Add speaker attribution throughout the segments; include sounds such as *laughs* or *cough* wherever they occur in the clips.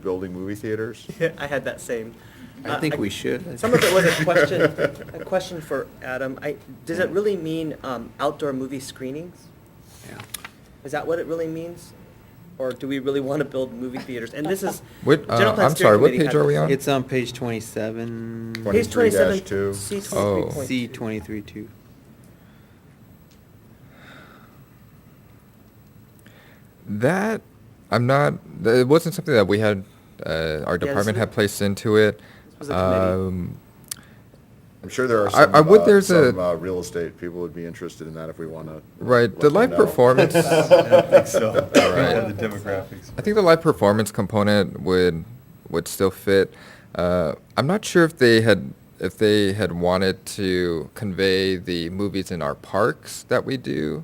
Speaker 1: building movie
Speaker 2: *laughs*
Speaker 1: theaters?
Speaker 2: I had that same.
Speaker 3: I
Speaker 2: Uh,
Speaker 3: think we should.
Speaker 2: Some of it was
Speaker 4: *laughs*
Speaker 2: a question, a question for Adam. I, does it really mean um, outdoor movie screenings?
Speaker 3: Yeah.
Speaker 2: Is that what it really means? Or do we really want to build movie theaters? And this is.
Speaker 4: What,
Speaker 2: the General
Speaker 4: uh,
Speaker 2: Plan
Speaker 4: I'm
Speaker 2: Steering
Speaker 4: sorry, what
Speaker 2: Committee
Speaker 4: page
Speaker 2: had
Speaker 4: are we
Speaker 2: this.
Speaker 4: on?
Speaker 3: It's um, on page twenty-seven.
Speaker 1: Twenty-
Speaker 2: Page twenty-seven,
Speaker 1: 23-2.
Speaker 2: C
Speaker 4: Oh.
Speaker 2: twenty-three point
Speaker 3: C
Speaker 2: two.
Speaker 3: twenty-three two.
Speaker 4: That I'm not. It wasn't something that we had. Uh, our
Speaker 2: this
Speaker 4: department
Speaker 2: is-
Speaker 4: had placed into it.
Speaker 2: this was a committee.
Speaker 4: Um,
Speaker 1: I'm sure there are
Speaker 4: I-
Speaker 1: some,
Speaker 4: I would-
Speaker 1: uh,
Speaker 4: there's a-
Speaker 1: some uh, real estate people would be interested in that if we want to.
Speaker 4: Right, the live
Speaker 1: *laughs*
Speaker 5: *laughs*
Speaker 4: performance-
Speaker 5: I don't think so.
Speaker 6: *laughs*
Speaker 4: All right.
Speaker 5: One of the demographics.
Speaker 4: I think the live performance component would would still fit. Uh, I'm not sure if they had if they had wanted to convey the movies in our parks that we do.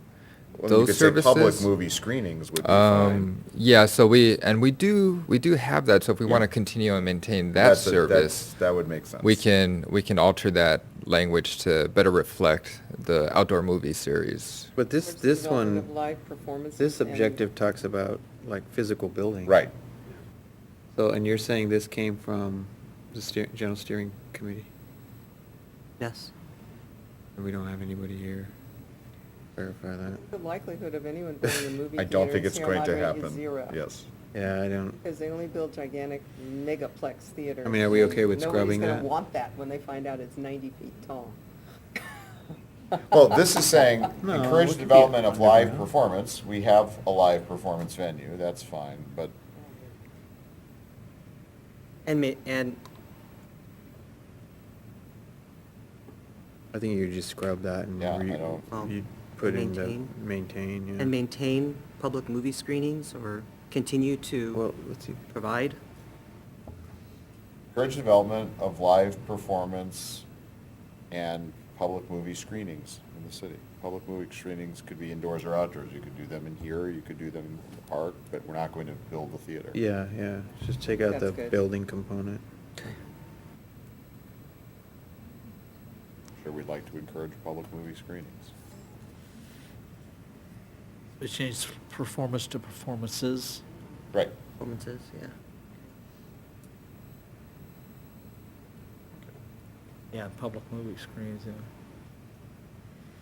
Speaker 1: Those services. Public movie screenings would be fine.
Speaker 4: Um, yeah, so we and we do we do have that. So if we want to continue and maintain that
Speaker 1: That's a- that's-
Speaker 4: service,
Speaker 1: That would make sense.
Speaker 4: we can we can alter that language to better reflect the outdoor movie series.
Speaker 3: But this,
Speaker 6: Towards the
Speaker 3: this
Speaker 6: development of
Speaker 3: one,
Speaker 6: live performances
Speaker 3: this
Speaker 6: and-
Speaker 3: objective talks about like physical building.
Speaker 1: Right.
Speaker 3: So, and you're saying this came from the steer, general steering committee?
Speaker 2: Yes.
Speaker 3: And we don't have anybody here. Verify that.
Speaker 6: The likelihood of anyone building a movie
Speaker 1: I don't think
Speaker 6: theater
Speaker 1: it's
Speaker 6: in
Speaker 1: going to
Speaker 6: Sierra Madre is
Speaker 1: happen.
Speaker 6: zero.
Speaker 1: Yes.
Speaker 3: Yeah, I don't,
Speaker 6: Because they only build gigantic megaplex theaters.
Speaker 3: I mean, are we okay with
Speaker 6: Nobody's
Speaker 3: scrubbing
Speaker 6: gonna
Speaker 3: that?
Speaker 6: want that when they find out it's ninety feet tall.
Speaker 1: Well, this is saying
Speaker 3: *laughs* No,
Speaker 1: encourage
Speaker 3: we
Speaker 1: the
Speaker 3: could be
Speaker 1: development of live
Speaker 3: underground.
Speaker 1: performance. We have a live performance venue, that's fine, but
Speaker 2: And ma- and
Speaker 3: I think you just scrub that and
Speaker 1: Yeah, I
Speaker 3: re-
Speaker 1: don't-
Speaker 2: Well,
Speaker 3: you put in the
Speaker 2: maintain.
Speaker 3: maintain, yeah.
Speaker 2: and maintain public movie screenings or continue
Speaker 3: Well,
Speaker 2: to
Speaker 3: let's see.
Speaker 2: provide.
Speaker 1: encourage development of live performance and public movie screenings in the city. Public movie screenings could be indoors or outdoors. You could do them in here, you could do them in the park, but we're not going to build the theater.
Speaker 3: Yeah, yeah, just take out
Speaker 6: That's
Speaker 3: the
Speaker 6: good.
Speaker 3: building component.
Speaker 1: Sure, we'd like to encourage public movie screenings.
Speaker 7: It changed performance to performances.
Speaker 1: Right.
Speaker 2: Performances, yeah.
Speaker 7: Yeah, public movie screens, yeah.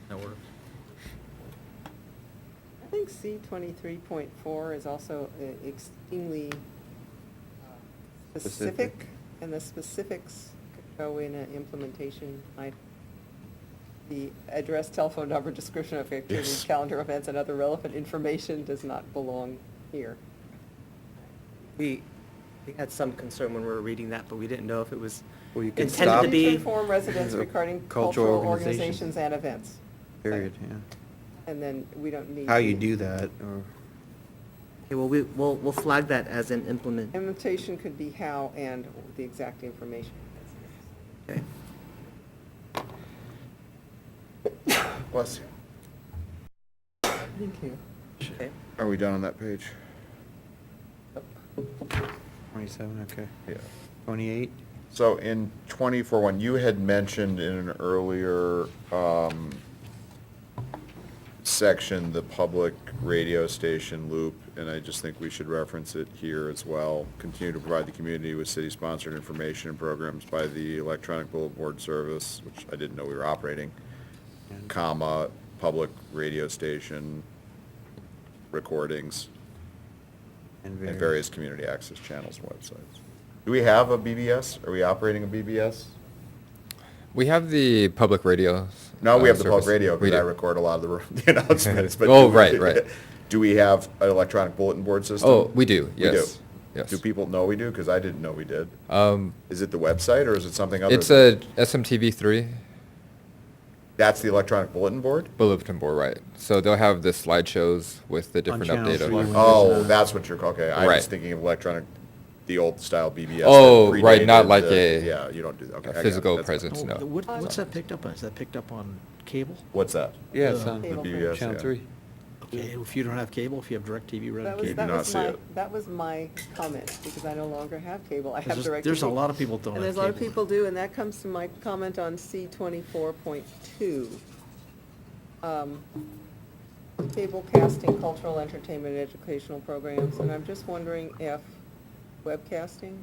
Speaker 7: That works.
Speaker 6: I think C twenty-three point four is also uh, extremely uh, specific,
Speaker 3: Specific.
Speaker 6: and the specifics could go in an implementation. I, the address, telephone number, description of activities,
Speaker 1: Yes.
Speaker 6: calendar events, and other relevant information does not belong here.
Speaker 2: We, we had some concern when we were reading that, but we didn't know if it was
Speaker 3: Well, you can
Speaker 2: intended to
Speaker 3: stop-
Speaker 6: Need
Speaker 2: be.
Speaker 6: inform
Speaker 3: *laughs*
Speaker 6: residents
Speaker 3: Uh,
Speaker 6: regarding
Speaker 3: cultural
Speaker 6: cultural
Speaker 3: organizations.
Speaker 6: organizations and events.
Speaker 3: Period,
Speaker 6: And then we don't
Speaker 3: yeah.
Speaker 6: need.
Speaker 3: How you
Speaker 6: the-
Speaker 3: do that, or,
Speaker 2: Okay, well, we, we'll, we'll flag that as an implement.
Speaker 6: Implementation could be how and the exact information.
Speaker 2: Okay.
Speaker 1: Bless you.
Speaker 6: Thank you.
Speaker 2: Okay.
Speaker 1: Are we done on that page?
Speaker 3: twenty-seven, okay.
Speaker 1: Yeah.
Speaker 3: Twenty-eight?
Speaker 1: So in twenty-four one, you had mentioned in an earlier, um, section, the public radio station loop, and I just think we should reference it here as well. Continue to provide the community with city-sponsored information and programs by the electronic billboard service, which I didn't know we were operating,
Speaker 3: And-
Speaker 1: comma, public radio station recordings, and various community access channels and websites. Do we have a BBS? Are we operating a BBS?
Speaker 4: We have the public radio.
Speaker 1: No, we
Speaker 4: uh,
Speaker 1: have the public
Speaker 4: service.
Speaker 1: radio,
Speaker 4: We
Speaker 1: because I
Speaker 4: do.
Speaker 1: record a lot of the r- *laughs* the announcements, but.
Speaker 4: *laughs* Oh,
Speaker 1: do we-
Speaker 4: right, right.
Speaker 1: *laughs* Do we have an electronic bulletin board system?
Speaker 4: Oh, we do,
Speaker 1: We do.
Speaker 4: yes, yes.
Speaker 1: Do people know we do? Because I didn't know we did.
Speaker 4: Um,
Speaker 1: Is it the website, or is it something other?
Speaker 4: it's
Speaker 1: than-
Speaker 4: a SMTV three
Speaker 1: That's the electronic bulletin board?
Speaker 4: bulletin board, right? So they'll have the slideshows with the
Speaker 3: On
Speaker 4: different
Speaker 3: channel
Speaker 4: update
Speaker 3: three, when
Speaker 4: of.
Speaker 3: there's
Speaker 1: Oh,
Speaker 3: a-
Speaker 1: that's what you're, okay, I was
Speaker 4: Right.
Speaker 1: thinking of electronic, the old style BBS. that
Speaker 4: Oh, right, not
Speaker 1: predated
Speaker 4: like
Speaker 1: the-
Speaker 4: a-
Speaker 1: Yeah, you don't do that, okay. I got it,
Speaker 4: physical
Speaker 1: that's fine.
Speaker 4: presence. It's
Speaker 7: Oh,
Speaker 4: no.
Speaker 7: th- what- What's
Speaker 6: Um,
Speaker 1: Sorry.
Speaker 7: that picked up on? Is that picked up on cable?
Speaker 1: What's that?
Speaker 3: Yeah, it's
Speaker 7: Uh,
Speaker 3: on
Speaker 6: The
Speaker 3: channel
Speaker 6: BBS,
Speaker 1: yeah.
Speaker 3: three.
Speaker 7: Okay, if you don't have cable, if you have DirecTV, Red
Speaker 6: That
Speaker 7: and
Speaker 6: was,
Speaker 1: did
Speaker 6: that
Speaker 1: not
Speaker 7: Cable.
Speaker 6: was
Speaker 1: see
Speaker 6: my,
Speaker 1: it.
Speaker 6: that was my comment, because I no longer have cable, I have
Speaker 7: There's
Speaker 6: direct.
Speaker 7: just- there's a lot of people that don't
Speaker 6: And
Speaker 7: have
Speaker 6: there's a lot of
Speaker 7: cable.
Speaker 6: people do, and that comes to my comment on C twenty-four point two. Um, Cable casting, cultural, entertainment, educational programs, and I'm just wondering if webcasting?